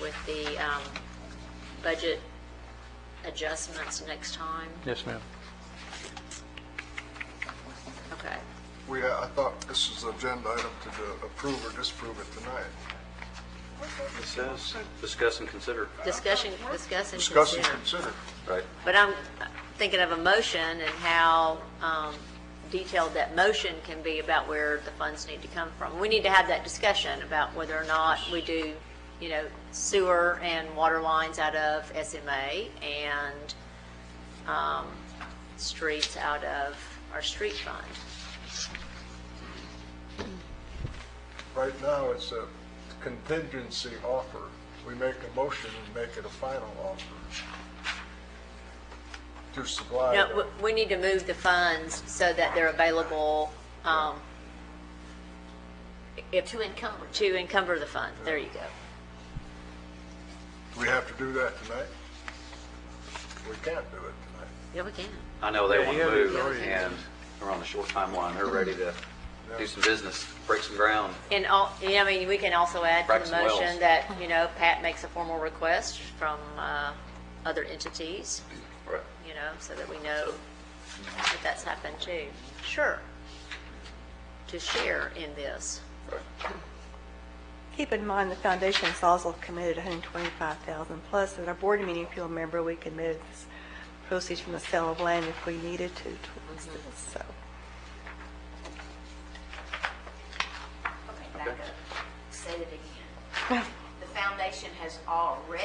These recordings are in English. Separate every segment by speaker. Speaker 1: with the um, budget adjustments next time?
Speaker 2: Yes, ma'am.
Speaker 1: Okay.
Speaker 3: We, uh, I thought this was an agenda item to do- approve or disapprove it tonight.
Speaker 4: It says, discuss and consider.
Speaker 1: Discussion, discuss and
Speaker 3: Discuss and
Speaker 1: consider.
Speaker 3: consider.
Speaker 4: Right.
Speaker 1: But I'm thinking of a motion and how um, detailed that motion can be about where the funds need to come from. We need to have that discussion about whether or not we do, you know, sewer and water lines out of SMA and um, streets out of our street fund.
Speaker 3: Right now, it's a contingency offer. We make a motion and make it a final offer to supply.
Speaker 1: No,
Speaker 3: the-
Speaker 1: w- we need to move the funds so that they're available um, if,
Speaker 5: to encumber.
Speaker 1: to encumber the fund. There you go.
Speaker 3: Do we have to do that tonight? We can't do it tonight.
Speaker 1: Yeah, we can.
Speaker 4: I know they
Speaker 2: Yeah,
Speaker 4: want
Speaker 2: you
Speaker 4: to
Speaker 2: have-
Speaker 4: move,
Speaker 3: yeah, yeah.
Speaker 4: and we're on a short timeline. They're ready to do some business, break some ground.
Speaker 1: And all, yeah, I mean, we can also add to
Speaker 4: Braxton
Speaker 1: the motion
Speaker 4: Wells.
Speaker 1: that, you know, Pat makes a formal request from uh, other entities,
Speaker 4: Right.
Speaker 1: you know, so that we know that that's happened too. Sure. To share in this.
Speaker 6: Keep in mind, the foundation's also committed 125,000 plus. At our board meeting, if you remember, we committed this proceeds from the sale of land if we needed to towards this, so.
Speaker 5: Okay, back up. Say it again. The foundation has already,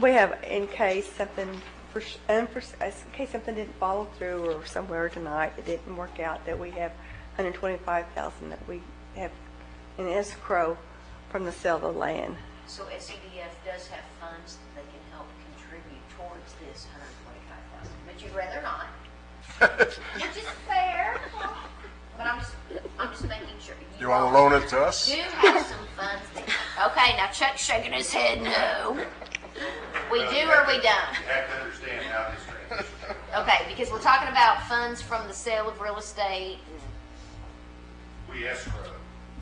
Speaker 6: We have, in case something, pers- unpers- in case something didn't follow through or somewhere tonight, it didn't work out, that we have 125,000 that we have in escrow from the sale of the land.
Speaker 5: so SCDF does have funds that they can help contribute towards this hundred and twenty-five thousand, but you'd rather not. Which is fair, but I'm just, I'm just making sure.
Speaker 3: You want to loan it to us?
Speaker 5: Do have some funds that, okay, now Chuck's shaking his head no. We do or we don't?
Speaker 7: You have to understand how this transitions.
Speaker 5: Okay, because we're talking about funds from the sale of real estate and
Speaker 7: We escrow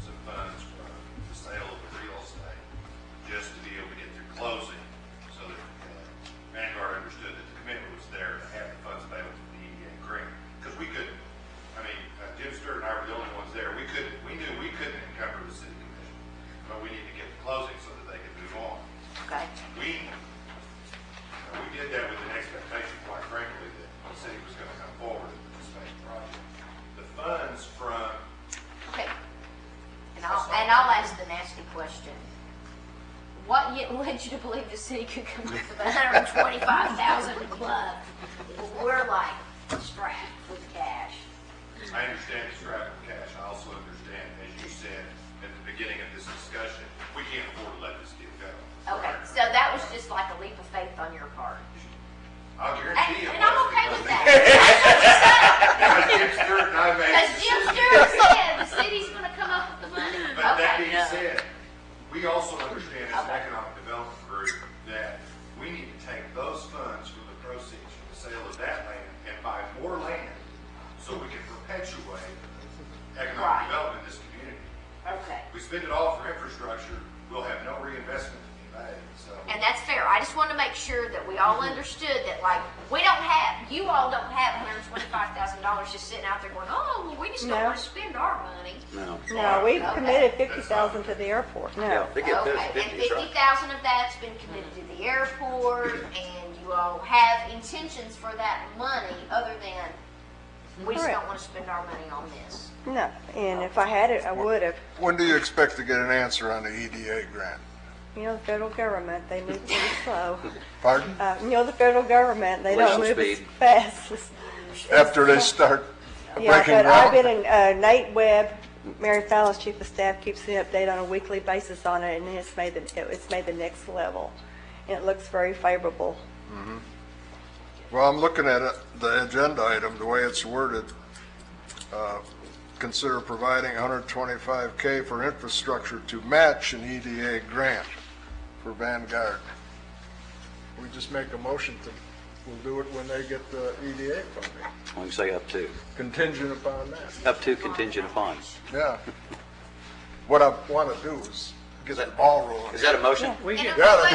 Speaker 7: some funds from the sale of the real estate just to be able to get through closing so that uh, Vanguard understood that the commitment was there to have the funds available for the EDA grant. Because we couldn't, I mean, uh, Jim Stewart and I were the only ones there. We couldn't, we knew we couldn't encumber the city commission, but we needed to get the closing so that they could move on.
Speaker 5: Okay,
Speaker 7: We, uh, we did that with an expectation, quite frankly, that the city was going to come forward with this major project. The funds from
Speaker 5: okay. And I'll, and I'll ask the nasty question. What ye- led you to believe the city could come up with hundred and twenty-five thousand club? We're like strapped with cash.
Speaker 7: I understand the scrap of cash. I also understand, as you said at the beginning of this discussion, we can't afford to let this deal go.
Speaker 5: Okay, so that was just like a leap of faith on your part.
Speaker 7: I'll
Speaker 5: And,
Speaker 7: guarantee it.
Speaker 5: and I'm okay with that.
Speaker 7: Because Jim Stewart and I made
Speaker 5: Because
Speaker 7: the
Speaker 5: Jim
Speaker 7: decision.
Speaker 5: Stewart said the city's gonna come up with the money.
Speaker 7: But that
Speaker 5: Okay,
Speaker 7: being said, we also understand as an economic development group that we need to take those funds from the proceeds from the sale of that land and buy more land so we can perpetuate
Speaker 5: Right.
Speaker 7: economic development in this community.
Speaker 5: Okay.
Speaker 7: We spend it all for infrastructure, we'll have no reinvestment to be made, so.
Speaker 5: And that's fair. I just want to make sure that we all understood that, like, we don't have, you all don't have $125,000 just sitting out there going, oh, well, we just don't
Speaker 6: No.
Speaker 5: want to spend our money.
Speaker 4: No.
Speaker 6: No, we've
Speaker 5: Okay.
Speaker 6: committed 50,000 to the airport,
Speaker 4: Yeah,
Speaker 6: no.
Speaker 4: they get those
Speaker 5: Okay, and
Speaker 4: 50s, right?
Speaker 5: 50,000 of that's been committed to the airport, and you all have intentions for that money other than, we just don't
Speaker 6: Correct.
Speaker 5: want to spend our money on this.
Speaker 6: No, and if I had it, I would have.
Speaker 3: When do you expect to get an answer on the EDA grant?
Speaker 6: You know, the federal government, they move pretty slow.
Speaker 3: Pardon?
Speaker 6: Uh, You know, the federal government, they don't
Speaker 4: Where's the
Speaker 6: move as
Speaker 4: speed?
Speaker 6: fast as...
Speaker 3: After they start
Speaker 6: Yeah,
Speaker 3: breaking
Speaker 6: but I've been
Speaker 3: ground?
Speaker 6: in, uh, Nate Webb, Mary Fallon's chief of staff, keeps the update on a weekly basis on it, and it's made the, it's made the next level. And it looks very favorable.
Speaker 3: Well, I'm looking at it, the agenda item, the way it's worded. Uh, Consider providing 125K for infrastructure to match an EDA grant for Vanguard. We just make a motion to, we'll do it when they get the EDA funding,
Speaker 4: When you say up to,
Speaker 3: contingent upon that.
Speaker 4: up to contingent upon.
Speaker 3: Yeah. What I want to do is get the ball rolling.
Speaker 4: Is that a motion?
Speaker 3: Yeah,